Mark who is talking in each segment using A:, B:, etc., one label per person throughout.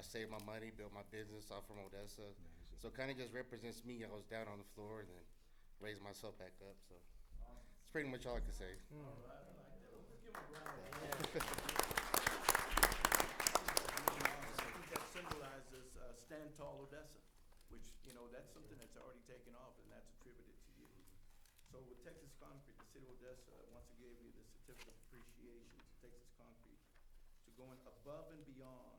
A: save uh, my money, build my business. I'm from Odessa. So it kind of just represents me. I was down on the floor and then raised myself back up. So it's pretty much all I can say.
B: I think that symbolizes uh, Stand Tall Odessa, which, you know, that's something that's already taken off, and that's attributed to you. So with Texas Concrete, the city of Odessa, once again, gave you the certificate of appreciation to Texas Concrete to going above and beyond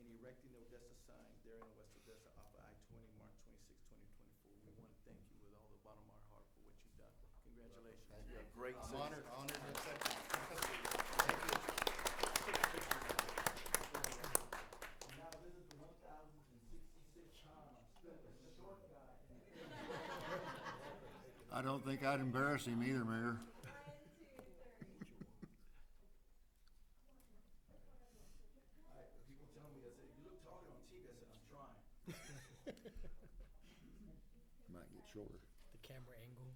B: in erecting the Odessa sign there in West Odessa off of I-20, March 26, 2024. We want to thank you with all the bottom of our heart for what you've done. Congratulations. You're a great
A: I'm honored, honored and accepted.
B: Now, this is the one thousand and sixty-six times, the short guy.
C: I don't think I'd embarrass him either, Mayor.
B: I, people tell me, I said, you look taller on TV, I said, I'm trying.
C: Might get shorter.
D: the camera angle.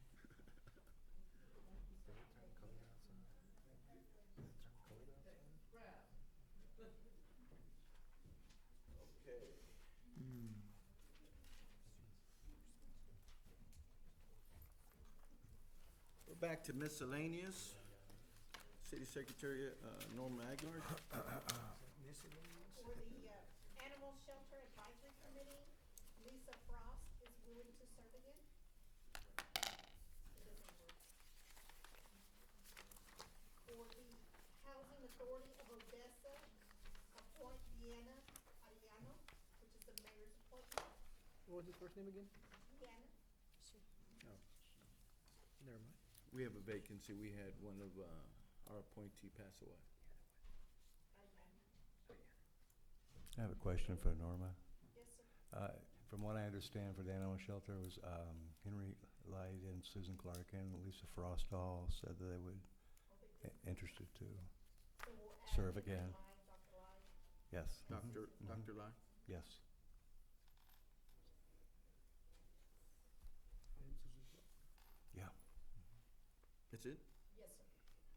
B: Okay. We're back to miscellaneous. City Secretary, uh, Norma Aguilar.
E: For the uh, Animal Shelter Advisory Committee, Lisa Frost is willing to serve again. It doesn't work. For the Housing Authority of Odessa, appoint Deanna Ariano, which is the mayor's appointment.
D: What was his first name again?
E: Deanna,
D: Never mind.
B: We have a vacancy. We had one of, uh, our appointee pass away.
E: Ariano,
F: I have a question for Norma.
E: yes, sir.
F: Uh, From what I understand for the animal shelter it was um, Henry Light and Susan Clark and Lisa Frost all said that they would, i- interested to,
E: So we'll add
F: Serve
E: Dr.
F: again.
E: Lyons, Dr. Lyons.
F: yes. mhm,
B: Doctor, Doctor Lai?
F: Yes. Yeah.
B: That's it?
E: Yes, sir.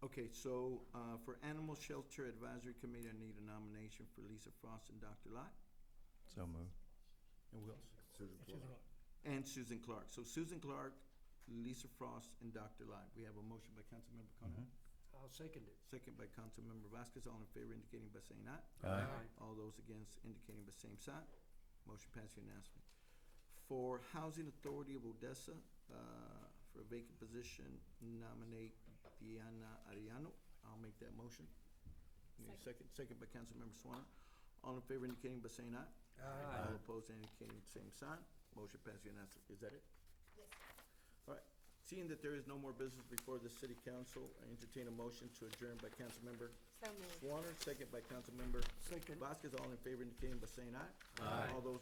B: Okay, so, uh, for Animal Shelter Advisory Committee, I need a nomination for Lisa Frost and Dr. Lot.
F: So moved.
B: And who else?
C: Susan Clark.
B: And Susan Clark. So Susan Clark, Lisa Frost, and Dr. Lot. We have a motion by Councilmember Conrad,
D: I'll second it.
B: second by Councilmember Vasquez. All in favor indicating by saying aye.
F: Aye.
B: All those against indicating by same sign. Motion passed unanimously. For Housing Authority of Odessa, uh, for a vacant position, nominate Diana Ariano. I'll make that motion. Need a Second, second by Councilmember Swann. All in favor indicating by saying aye. Aye. All opposed indicating same sign. Motion passed unanimously. Is that it?
E: Yes, sir.
B: All right, seeing that there is no more business before the city council, I entertain a motion to adjourn by Councilmember
G: So moved.
B: Swanner, second by Councilmember
D: Second.
B: Vasquez. All in favor indicating by saying aye. Aye. All those